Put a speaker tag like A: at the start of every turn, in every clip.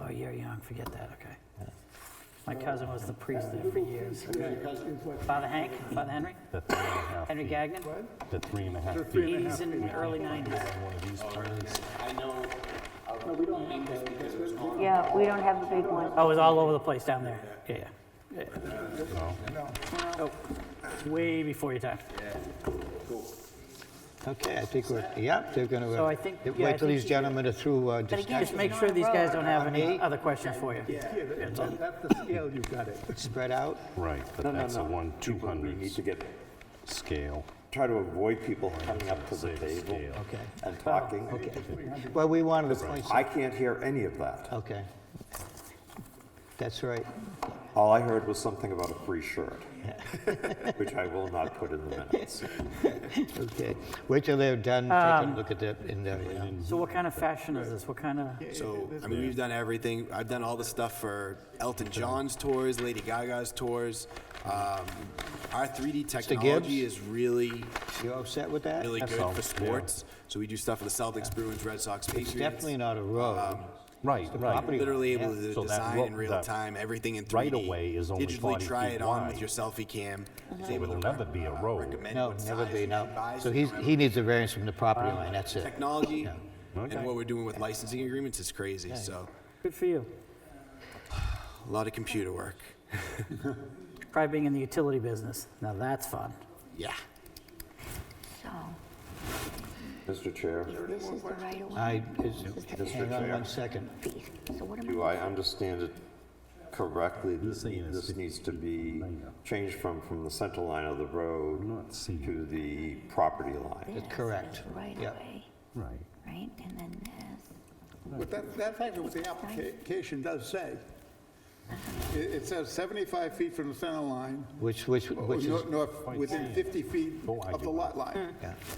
A: Oh, you're young, forget that, okay. My cousin was the priest there for years. Father Hank, Father Henry,
B: The three and a half
A: Henry
B: feet.
A: Gagnon,
B: The three and a half feet.
C: three and a half
A: he's in the early 90s.
B: One of these plans.
D: I know. No,
C: we don't have
D: this because it was on.
E: Yeah, we don't have a big one.
A: Oh, it was all over the place down there, yeah, yeah. yeah. Oh, it's way before your time.
F: Okay, I think we're, yep, they're going to.
A: So I think- yeah, I
F: Wait till
A: think
F: these
A: you-
F: gentlemen are through uh,
A: Just
F: discussion,
A: make sure these guys don't have any other questions for you.
C: That's the scale you got it.
F: spread out.
B: Right,
G: No,
B: but
G: no,
B: that's a
G: no.
B: one two
G: People, We need
B: hundred
G: to get,
B: scale.
G: try to avoid people coming up to the
B: Save
G: table
B: scale.
F: Okay.
G: and talking.
F: Well, we wanted to point,
G: I can't hear any of that.
F: okay. That's right.
G: All I heard was something about a free shirt, which I will not put in the minutes.
F: Okay. Wait till they're done,
A: Um,
F: take a look at that in there. yeah.
A: So what kind of fashion is this? What kind of,
D: So, I mean, we've done everything. I've done all the stuff for Elton John's tours, Lady Gaga's tours. Um, our 3D technology
F: Gibbs?
D: is really,
F: You upset with that?
D: really good for sports. So we do stuff for the Celtics, Bruins, Red Sox, Patriots.
F: Definitely not a road.
B: Right, right.
F: property
D: Literally
F: line,
D: able
F: yeah.
D: to
B: So that
D: design
B: ro-
D: in real
B: that
D: time, everything in 3D.
B: right of way is only 40
D: Digitally try
B: feet
D: it on with
B: wide.
D: your selfie cam. It's
B: It
D: able to
B: will
D: rec-
B: never be a road.
D: recommend
F: No,
D: what
F: never
D: size
F: be,
D: you
F: no.
D: should buy,
F: So
D: you
F: he's,
D: can
F: he needs a variance from the property line, that's it.
D: technology
B: Okay.
D: and what we're doing with licensing agreements is crazy. So
A: good for you.
D: a lot of computer work.
A: Try being in the utility business. Now that's fun.
D: Yeah.
E: So,
G: Mr. Chair,
E: this is the right of
F: I,
E: way
F: is- hang on one second.
E: piece. So what am
G: do
E: I?
G: I understand it correctly? This, this needs to be changed from, from the center line of the road to the property line.
E: This is
F: correct.
E: Right
F: Yeah.
E: of way,
B: Right.
E: right? And then this.
C: But that, that's actually what the application does say. It, it says 75 feet from the center line,
F: Which, which,
C: or
F: which is,
C: nor- north, within 50 feet of the lot line.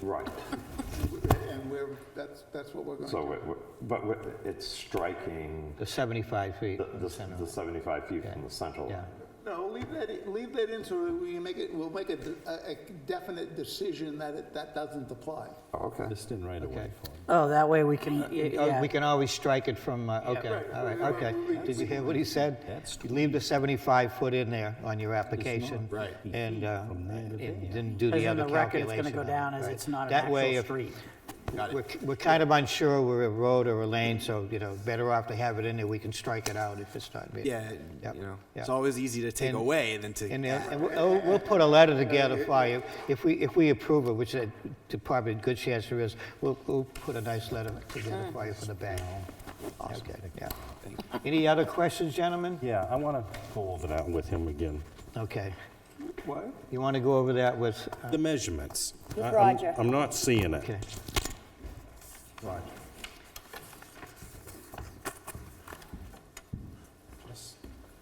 G: Right.
F: Hmm.
C: And we're, that's, that's what we're going to
G: So, it- but it- it's striking
F: the 75 feet.
G: the,
F: from
G: the
F: center.
G: the 75 feet from the center
F: Yeah.
G: line.
C: No, leave that, i- leave that in so that we can make it, we'll make a de- a, a definite decision that it, that doesn't apply.
G: Okay.
B: Distant right of way.
F: Okay.
A: Oh, that way we can, y-
F: Oh,
A: yeah.
F: We can always strike it from, uh, okay, all right, okay. Did you hear what he said? You Leave the 75 foot in there on your application.
D: Right.
F: And, uh, and then do
A: Because
F: the
A: in
F: other
A: the record, it's going
F: calculation.
A: to go
F: on it,
A: down as
F: right.
A: it's not an
F: That
A: actual
F: way, if-
A: street.
D: Got
F: We're,
D: it.
F: we're kind of unsure we're a road or a lane, so, you know, better off to have it in there, we can strike it out if it's not. being-
D: Yeah,
F: Yep,
D: you know,
F: yeah.
D: it's always easy to take
F: And-
D: away than to.
F: And, uh, and we'll, we'll put a letter together for you. If we, if we approve it, which uh, to probably a good chance there is, we'll, we'll put a nice letter together for you for the bank. Okay, yeah. Any other questions, gentlemen?
B: Yeah, I want to go over that with him again.
F: Okay.
C: What?
F: You want to go over that with,
B: The measurements.
E: With
B: I- I'm-
E: Roger.
B: I'm not seeing it.
F: okay.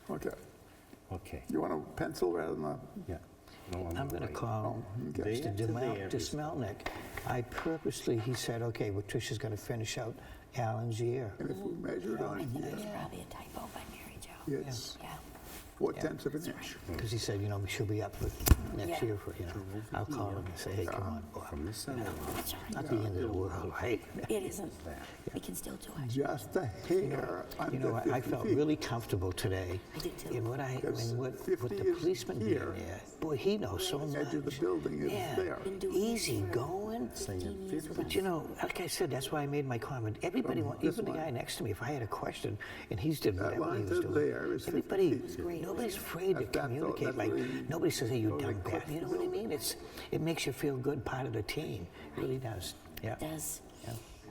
C: Okay,
B: Okay,
C: you want a pencil rather than a?
B: yeah. No,
F: I'm going to call Mr.
B: There to
F: Demel-
B: there.
F: Dismelnick. I purposely, he said, okay, well, Tricia's going to finish out Alan's year.
C: And if we measure it on
E: It's
C: here,
E: probably a typo by Mary Jo.
C: it's
E: Yeah.
C: four tenths of an inch.
F: Because he said, you know, she'll be up for next
E: Yeah.
F: year for, you know. I'll call him and say, hey, come on, Bob. Not the end of the world, right?
E: It isn't. We can still do it.
C: Just a hair
F: You know,
C: under
F: I- I
C: 50
F: felt
C: feet.
F: really comfortable today.
E: I did too.
F: In what I,
C: Because
F: in what,
C: 50
F: with the
C: is
F: policeman being
C: here.
F: there, boy, he knows so much.
C: Edge of the building is
F: Yeah,
C: there.
E: Been doing
F: easy
E: this for
F: going.
E: 15 years with
F: But you know, like I said, that's why I made my comment. Everybody, wa-
C: Oh, this
F: even the
C: line.
F: guy next to me, if I had a question and he's did whatever he
C: line
F: was
C: to there
F: doing.
C: is
F: Everybody,
C: 50
E: feet.
F: nobody's afraid to
C: That's- that's all-
F: communicate.
C: that's
F: Like,
C: what he-
F: nobody says, hey, you
C: Oh, they
F: dumb crap.
C: clipped
F: You know what I mean? It's, it makes you feel good, part of the team. It Really does. Yeah,
E: It Does.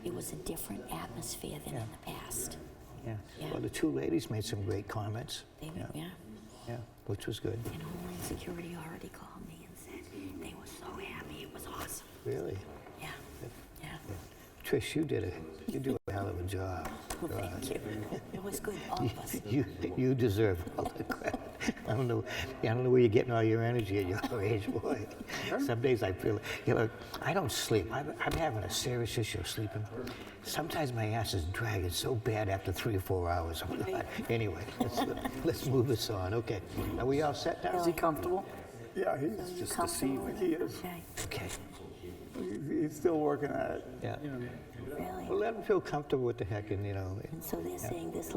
E: It was a different atmosphere than in the past.
F: yeah.
E: Yeah.
F: Well, the two ladies made some great comments.
E: They,
F: Yeah,
E: yeah.
F: yeah, which was good,
E: And Homeland Security already called me and said they were so happy. It was awesome.
F: really.
E: Yeah. Yeah.
F: Trish, you did a, you do a hell of a job.
E: Well, thank you. It was good, all of us.
F: You, you deserve all the credit. I don't know, I don't know where you're getting all your energy at your age, boy. Some days I feel, you know, I don't sleep. I'm, I'm having a serious issue sleeping. Sometimes my ass is dragging so bad after three or four hours. I'm not- Anyway, let's, let's move this on. Okay, are we all set now?
A: Is he comfortable?
C: Yeah, he's,
E: Just deceiving.
C: he is,
E: Okay,
F: Okay,
C: he's- he's still working at it.
F: yeah.
E: really?
F: Well, let them feel comfortable with the heck and, you know,
E: And so they're saying this